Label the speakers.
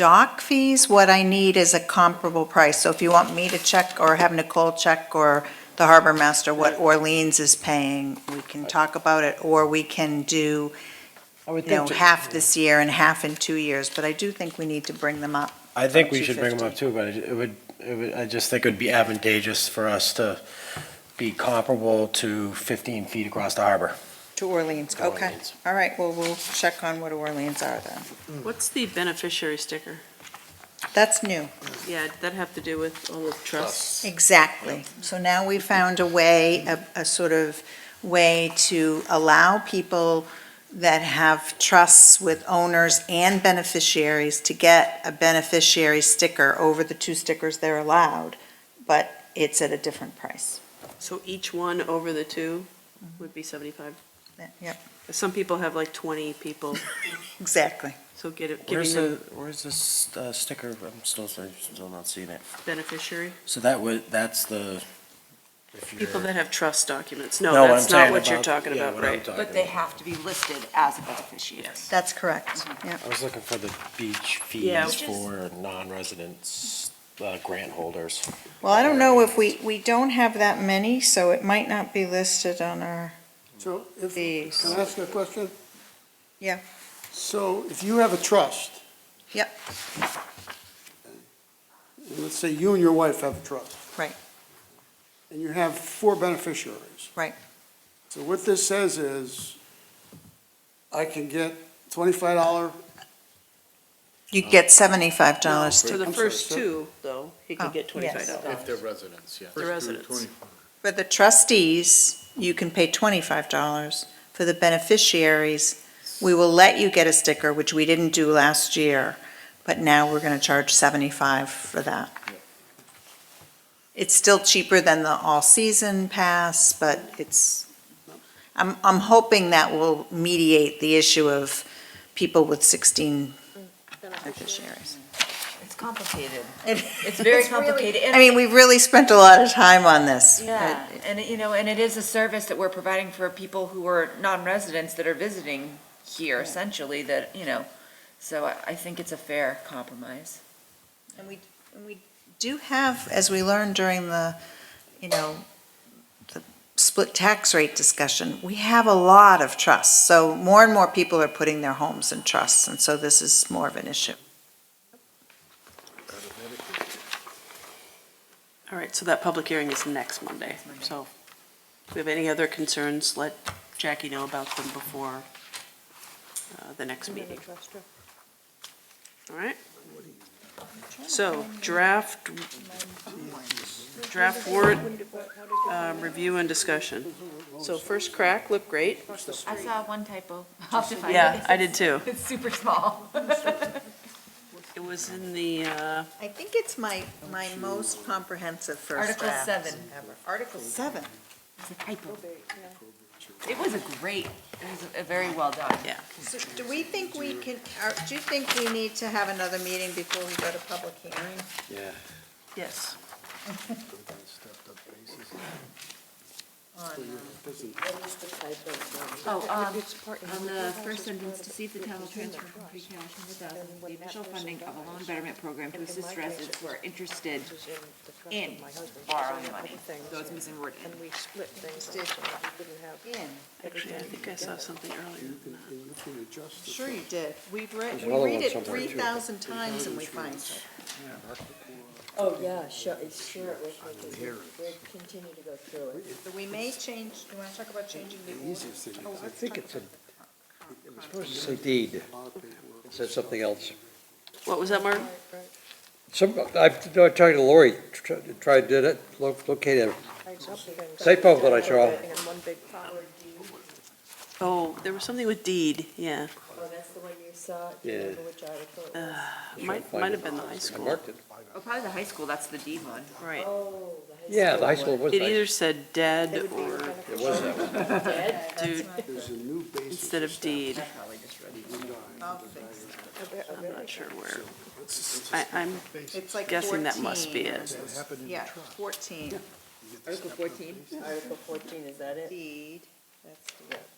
Speaker 1: dock fees. What I need is a comparable price. So if you want me to check or have Nicole check or the harbor master what Orleans is paying, we can talk about it, or we can do,
Speaker 2: I would
Speaker 1: you know,
Speaker 2: think,
Speaker 1: half this year and half in two years. But I do think we need to bring them up.
Speaker 3: I think we should bring them up too, but it would, it would, I just think it would be advantageous for us to be comparable to 15 feet across the harbor.
Speaker 1: To Orleans,
Speaker 3: To
Speaker 1: okay.
Speaker 3: Orleans.
Speaker 1: All right, well, we'll check on what Orleans are then.
Speaker 4: What's the beneficiary sticker?
Speaker 1: That's new.
Speaker 4: Yeah, did that have to do with all the trusts?
Speaker 1: Exactly. So now we found a way, a, a sort of way to allow people that have trusts with owners and beneficiaries to get a beneficiary sticker over the two stickers they're allowed, but it's at a different price.
Speaker 4: So each one over the two would be 75?
Speaker 1: Yep,
Speaker 4: Some people have like 20 people,
Speaker 1: exactly.
Speaker 4: so get it, giving
Speaker 5: Where's
Speaker 4: them
Speaker 5: the, where's this uh, sticker? I'm still, sorry, still not seeing it.
Speaker 4: beneficiary,
Speaker 5: So that would, that's the. if
Speaker 4: people
Speaker 5: you're-
Speaker 4: that have trust documents. No,
Speaker 5: No, what I'm
Speaker 4: that's not
Speaker 5: saying
Speaker 4: what you're
Speaker 5: about-
Speaker 4: talking
Speaker 3: yeah,
Speaker 4: about,
Speaker 3: what I'm
Speaker 4: right?
Speaker 3: talking
Speaker 6: But they
Speaker 3: about.
Speaker 6: have to be listed as a beneficiary.
Speaker 1: That's correct. Yep.
Speaker 3: I was looking for the beach
Speaker 4: Yeah.
Speaker 3: fees for non-residents, uh, grant holders.
Speaker 1: Well, I don't know if we, we don't have that many, so it might not be listed on our,
Speaker 7: So if,
Speaker 1: These.
Speaker 7: can I ask a question?
Speaker 1: Yeah.
Speaker 7: So if you have a trust.
Speaker 1: Yep.
Speaker 7: and Let's say you and your wife have a trust.
Speaker 1: Right.
Speaker 7: And you have four beneficiaries.
Speaker 1: Right.
Speaker 7: So what this says is, I can get twenty-five dollar,
Speaker 1: you get seventy-five dollars
Speaker 4: So
Speaker 1: to,
Speaker 4: the
Speaker 7: I'm sorry,
Speaker 4: first
Speaker 7: so-
Speaker 4: two, though, he
Speaker 1: Oh,
Speaker 4: could get
Speaker 1: yes.
Speaker 4: $25.
Speaker 8: If they're residents, yeah.
Speaker 4: The residents.
Speaker 1: for the trustees, you can pay twenty-five dollars. For the beneficiaries, we will let you get a sticker, which we didn't do last year, but now we're gonna charge seventy-five for that. It's still cheaper than the all-season pass, but it's, I'm, I'm hoping that will mediate the issue of people with sixteen beneficiaries.
Speaker 6: It's complicated.
Speaker 1: It's
Speaker 6: very complicated, and-
Speaker 1: I mean, we've really spent a lot of time on this. but
Speaker 6: Yeah, and, you know, and it is a service that we're providing for people who are non-residents that are visiting here essentially that, you know, so I, I think it's a fair compromise.
Speaker 1: And we, and we do have, as we learned during the, you know, the split tax rate discussion, we have a lot of trusts. So more and more people are putting their homes in trusts, and so this is more of an issue.
Speaker 4: All right, so that public hearing is next Monday. So if we have any other concerns, let Jackie know about them before uh, the next meeting. All right? So draft, draft warrant, um, review and discussion. So first crack looked great.
Speaker 6: I saw one typo. I'll have to find
Speaker 4: Yeah,
Speaker 6: it.
Speaker 4: I did too.
Speaker 6: It's super small.
Speaker 4: It was in the, uh,
Speaker 1: I think it's my, my most comprehensive first
Speaker 6: Article
Speaker 1: draft
Speaker 6: seven.
Speaker 1: ever. Article seven.
Speaker 6: It's a typo. It was a great, it was a very well done.
Speaker 4: yeah.
Speaker 1: So do we think we can, are- do you think we need to have another meeting before we go to public hearing?
Speaker 4: Yes.
Speaker 9: Oh, um, on the first sentence, to see if the town will transfer from free cash hundred thousand, the initial funding of a loan betterment program to assist residents who are interested
Speaker 6: In borrowing money, so it's missing word in.
Speaker 1: In.
Speaker 4: Actually, I think I saw something earlier than that.
Speaker 1: Sure you did. We've read,
Speaker 3: There's
Speaker 1: we
Speaker 3: another
Speaker 1: read
Speaker 3: one
Speaker 1: it
Speaker 3: somewhere,
Speaker 1: three
Speaker 3: too.
Speaker 1: thousand times and we find it.
Speaker 9: Oh, yeah, sure, it's sure, we'll continue to go through it.
Speaker 1: But we may change, do you wanna talk about changing the order? Oh,
Speaker 10: I think it's a, it was supposed to say deed, it said something else.
Speaker 4: What was that, Mark?
Speaker 10: Some, I, I talked to Lori, tr- tried, did it, lo- located it. Typo that I saw.
Speaker 4: Oh, there was something with deed, yeah.
Speaker 9: Oh, that's the one you saw, do
Speaker 10: Yeah.
Speaker 9: you remember which article it was?
Speaker 4: Might, might have been the high
Speaker 10: I
Speaker 4: school,
Speaker 10: marked it.
Speaker 6: Oh, probably the high school, that's the D one.
Speaker 4: right.
Speaker 9: Oh, the high school.
Speaker 10: Yeah, the high school was
Speaker 4: It
Speaker 10: nice.
Speaker 4: either said dead or
Speaker 10: It was that one.
Speaker 9: Dead?
Speaker 4: dude
Speaker 7: there's a new basis.
Speaker 4: instead of deed.
Speaker 6: Probably just read it.
Speaker 1: I'll fix that.
Speaker 4: I'm not sure where. I, I'm
Speaker 1: It's like
Speaker 4: guessing that must be
Speaker 1: 14.
Speaker 4: it.
Speaker 1: Yeah, fourteen.
Speaker 9: Article fourteen? Article fourteen, is that it?
Speaker 1: Deed, that's the